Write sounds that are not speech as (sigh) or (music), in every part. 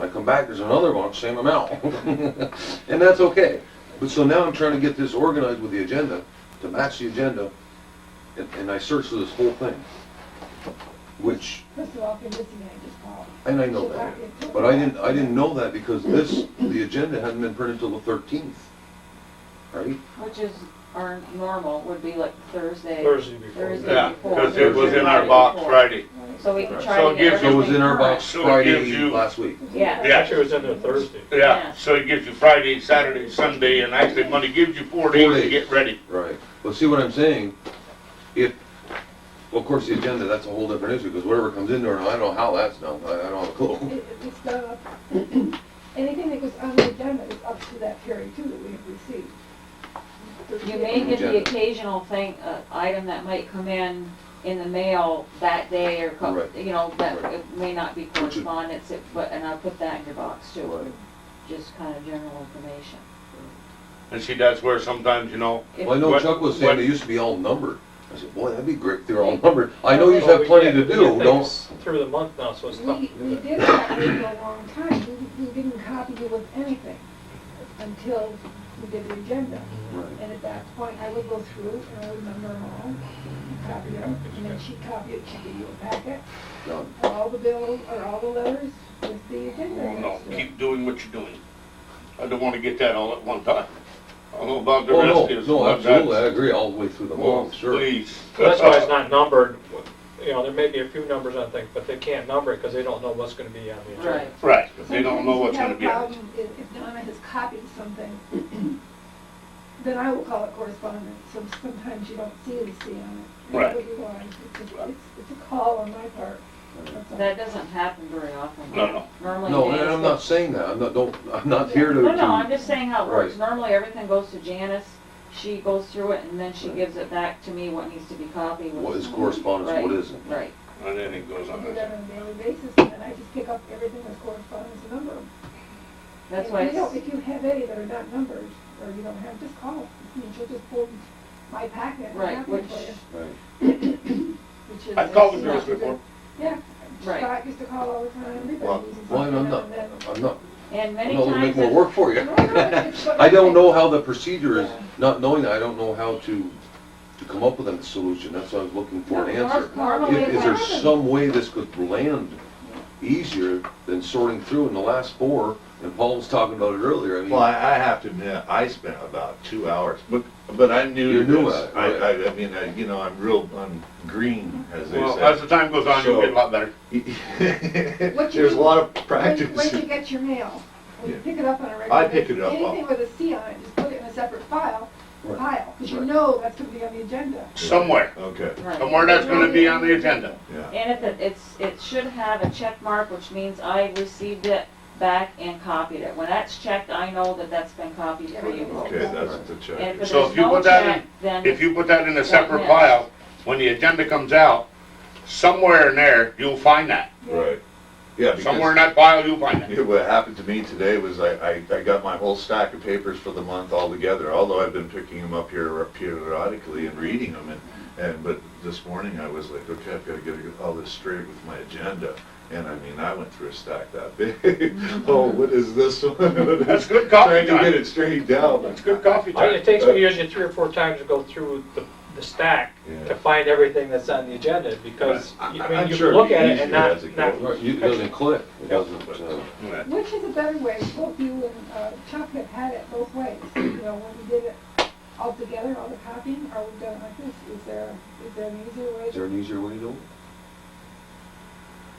I come back, there's another one, same amount. (laughs) And that's okay. But so now I'm trying to get this organized with the agenda, to match the agenda, and, and I searched through this whole thing. Which, First of all, if you're listening, I just called. and I know that, but I didn't, I didn't know that because this, the agenda hadn't been printed till the thirteenth, right? Which is our normal, would be like Thursday. Thursday before. Thursday. Yeah, because it was in our box Friday. So we can Right. try So to it get gives So it was in our box So it gives Friday you- last week. Yeah. Actually, it was in there Thursday. Yeah. Yeah, so it gives you Friday, Saturday, Sunday, and actually Monday gives you four days days. to get ready. Right. Well, see what I'm saying? If, well, of course, the agenda, that's a whole different issue, because whatever comes in there, I don't know how that's done, I, I don't have a clue. It- It's done up, (clears throat) anything that was on the agenda is up to that period too that we have received. You may get the occasional thing, uh, item that might come in, in the mail that day or, co- Right. you know, that Right. it may not be is- correspondence, it- but, and I'll put that in your box too. Right. Just kind of general information. And see, that's where sometimes, you know, If- Well, I know What- Chuck was saying what- they used to be all numbered. I said, boy, that'd be great, they're all (laughs) numbered. I Oh, know you have plenty to do, don't, Through the month now, so it's tough to We, we do that. did that way for a long time, we, we didn't copy you with anything until we did the agenda. Right. And at that point, I would go through and I would number them all, copy them, and then she'd copy it, she'd give you a packet, no, of all the bills, or all the letters with the agenda. oh, no, next to it. keep doing what you're doing. I don't want to get that all at one time. I don't know about the oh, no, rest of no, absolutely, I agree, all the way through the Well, month, sure. please. But That's why it's not numbered, you know, there may be a few numbers on things, but they can't number it because they don't know what's gonna be on the agenda. Right. (laughs) Right, 'cause they don't know what's gonna be on Sometimes it. we have a problem If if Donna has copied something, (clears throat) then I will call it correspondence, so sometimes you don't see the C on it. Right. It's a- it's- it's a call on my part. That's all. That doesn't happen very often. No, no. Normally. No, it and is I'm the- not saying that, I'm not, don't, I'm not here to, No, no, I'm to, just saying how it works. Right. Normally, everything goes to Janice, she goes through it, and then she Right. gives it back to me, what needs to be copied. what is correspondence, Right, what isn't. Right, And then it goes I on. do that on a daily basis, and then I just pick up everything that's correspondence and number them. that's If why you don't- it's, If you have any that are not numbered, or you don't have, just call, I mean, she'll just pull my packet and Right, have it which- for you, Right. which is. I've called the it's girls not good. before. Yeah. Right. Scott used to call all the time, Well, everybody uses. Well, it, I'm not, and then- I'm not, and I'm many not gonna make times, more it's- work for (laughs) you. No, no, it's- it's (laughs) what I don't think. know how the procedure is, not knowing that, I don't know how to, to come up with a solution, that's why I was looking for an Of course, answer. normally If- it Is there happens. some way this could land easier than sorting through in the last four, and Paul was talking about it earlier, I Well, mean, I, I have to admit, I spent about two hours, but, but I knew You knew this. it, I, right. I, I mean, I, you know, I'm real, I'm green, as they Well, as say. the time goes on, you'll get a lot better. (laughs) What you There's a do- lot of When practice. when you get your mail, when you Yeah. pick it up on a regular. I pick it up Anything off- with a C on it, just put it in a separate file, Right. pile, because you Right. know that's gonna be on the agenda. Somewhere, Okay, right. somewhere that's gonna be on the agenda. yeah. And if it, it's, it should have a check mark, which means I received it back and copied it. When that's checked, I know that that's been copied for you. Everything's Okay, that's the check. And if So there's if you no put that in- check, then. If you put that in a separate Yeah. pile, when the agenda comes out, somewhere in there, you'll find that. Right. Yeah, Somewhere in because that pile, you'll (laughs) find that. yeah, what happened to me today was I, I, I got my whole stack of papers for the month all together, although I've been picking them up here periodically and reading them and, and, but this morning I was like, okay, I've gotta get all this straight with my agenda. And I mean, I went through a stack that big. (laughs) Oh, what is this one? (laughs) That's good Trying coffee to get time. it straightened out. That's good coffee I mean, time. it takes me usually three or four times to go through the, the stack Yeah. to find everything that's on the agenda because, I- you- I- I mean, I'm you sure can look it'd at be it and easier not, as it not, goes. right, you- it doesn't click, it doesn't, uh, Yeah. Which is a better way, both you and uh, Chuck have had it both ways, you know, when we did it all together, all the copying, or we've done it like this, is there, is there an easier way? is there an easier way to do it?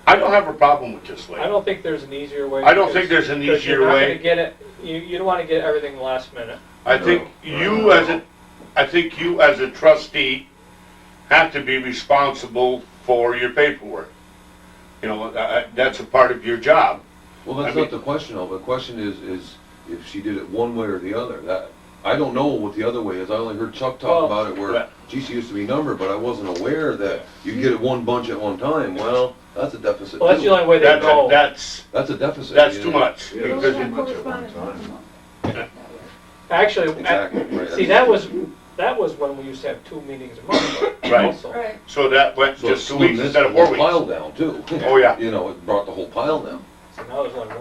I don't have a problem with this I way. don't think there's an easier way. I don't because- think there's an because easier you're not way. gonna get it, you, you don't wanna get everything last minute. I think No, you no. as a, I think you as a trustee have to be responsible for your paperwork. You know, I- I- that's a part of your job. Well, that's I not mean- the question of, it. the question is, is if she did it one way or the other, that, I don't know what the other way is, I only heard Chuck Well, talk about it where, yeah. gee, she used to be numbered, but I wasn't aware that you get it one bunch at one time, well, that's a deficit Well, that's the too. only way they That's, know. that's, That's a deficit. that's you too know. much. Yeah. Those because are too much at one correspondence time. that's wrong. Actually, Exactly, right. see, that was, that was when we used to have two meetings a month Right. also. Right, So that went So just two slim weeks this instead of whole four weeks. Pile down too. (laughs) Oh, yeah. You know, it brought the whole pile down. So now there's only one